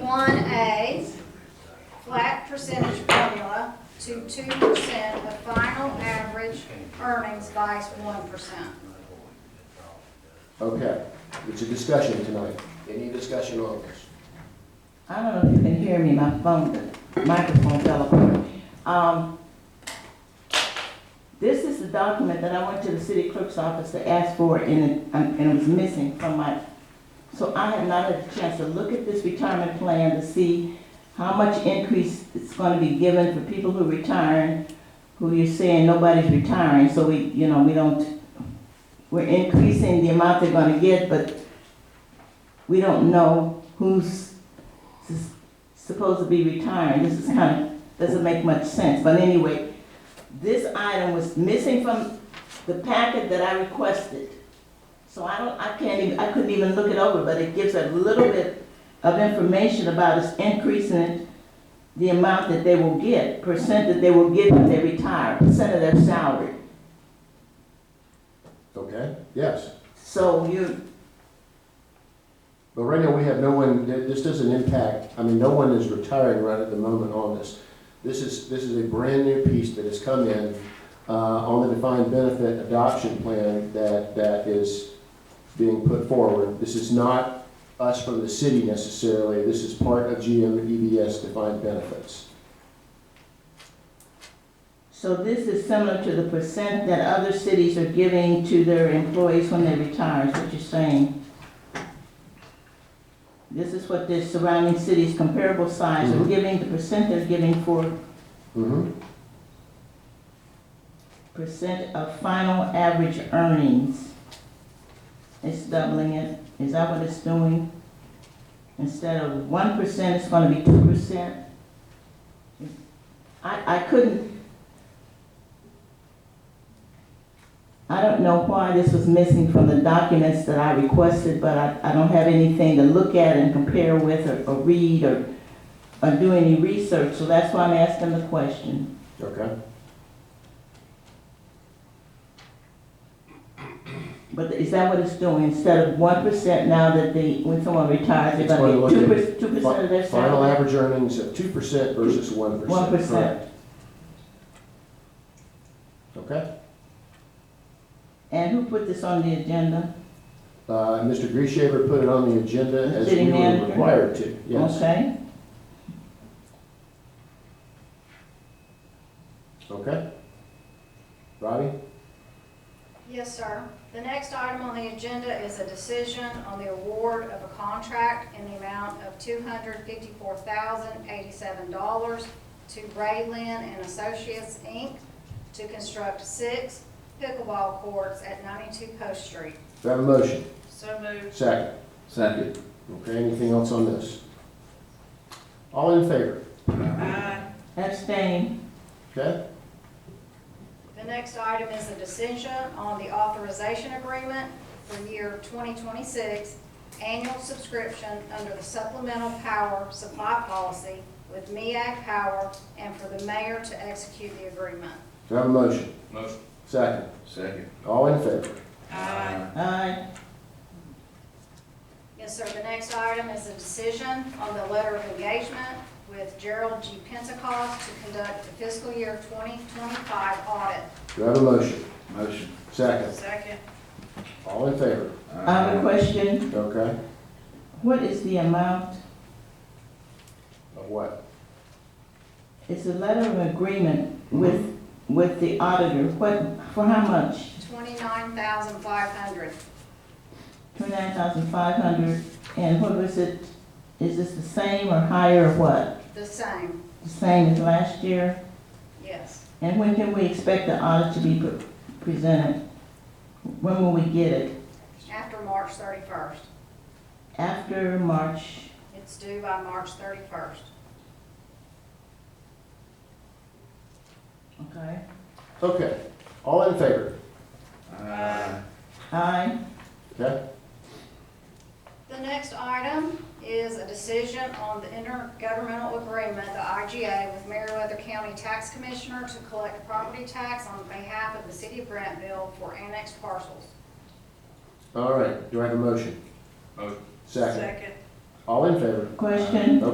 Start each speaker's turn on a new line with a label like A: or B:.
A: one A, flat percentage formula to two percent of final average earnings by one percent.
B: Okay, it's a discussion tonight. Any discussion on this?
C: I don't know if you can hear me, my phone, microphone fell apart. Um, This is the document that I went to the city clerk's office to ask for and it, um, and it was missing from my, so I have not had a chance to look at this retirement plan to see how much increase it's gonna be given for people who retire, who you're saying nobody's retiring, so we, you know, we don't, we're increasing the amount they're gonna get, but we don't know who's s- supposed to be retiring, this is kind of, doesn't make much sense, but anyway, this item was missing from the packet that I requested. So I don't, I can't even, I couldn't even look it over, but it gives a little bit of information about us increasing the amount that they will get, percent that they will get when they retire, percent of their salary.
B: Okay, yes.
C: So you,
B: But right now, we have no one, th- this doesn't impact, I mean, no one is retiring right at the moment on this. This is, this is a brand-new piece that has come in uh, on the defined benefit adoption plan that, that is being put forward. This is not us from the city necessarily, this is part of GM EBS defined benefits.
C: so this is similar to the percent that other cities are giving to their employees when they retire, is what you're saying? This is what the surrounding cities comparable size are
B: Mhm.
C: giving, the percent they're giving for
B: Mm-hmm.
C: percent of final average earnings. It's doubling it, is that what it's doing? Instead of one percent, it's gonna be two percent? I, I couldn't. I don't know why this was missing from the documents that I requested, but I, I don't have anything to look at and compare with or, or read or, or do any research, so that's why I'm asking the question.
B: Okay,
C: But is that what it's doing? Instead of one percent now that they, when someone retires, they're
B: It's going to
C: gonna
B: look
C: get
B: at
C: two percent, two percent of their
B: final
C: salary?
B: average earnings of two percent versus one percent.
C: One percent.
B: Okay,
C: And who put this on the agenda?
B: Uh, Mr. Grishaber put it on the agenda as
C: City
B: we were
C: manager.
B: required to, yes.
C: Okay,
B: Okay. Robbie?
A: Yes, sir. The next item on the agenda is a decision on the award of a contract in the amount of two hundred fifty-four thousand eighty-seven dollars to Rayland and Associates, Inc. to construct six pickleball courts at ninety-two Post Street.
B: Do I have a motion?
A: So moved.
B: Second.
D: Second.
B: Okay, anything else on this? All in favor?
C: abstain.
B: Okay?
A: The next item is a decision on the authorization agreement for year 2026, annual subscription under the supplemental power supply policy with MEAG Power and for the mayor to execute the agreement.
B: Do I have a motion?
D: Motion.
B: Second.
D: Second.
B: All in favor?
D: Aye.
C: Aye,
A: Yes, sir, the next item is a decision on the letter of engagement with Gerald G. Pentecost to conduct the fiscal year 2025 audit.
B: Do I have a motion?
D: Motion.
B: Second.
A: Second.
B: All in favor?
C: I
B: Uh,
C: have a question,
B: Okay?
C: what is the amount?
B: Of what?
C: It's a letter of agreement
B: Mm-hmm.
C: with, with the auditor, what, for how much?
A: $29,500.
C: Twenty-nine thousand five hundred, and what was it, is this the same or higher or what?
A: The same,
C: The same as last year?
A: yes.
C: And when can we expect the audit to be pre- presented? When will we get it?
A: After March 31st.
C: After March?
A: It's due by March 31st.
C: Okay.
B: Okay. All in favor?
D: Aye.
C: Aye.
B: Okay?
A: The next item is a decision on the intergovernmental agreement, the IGA, with Meriwether County Tax Commissioner to collect property tax on behalf of the city of Grantville for annexed parcels.
B: All right. Do I have a motion?
D: Motion.
B: Second. All in favor?
C: Question?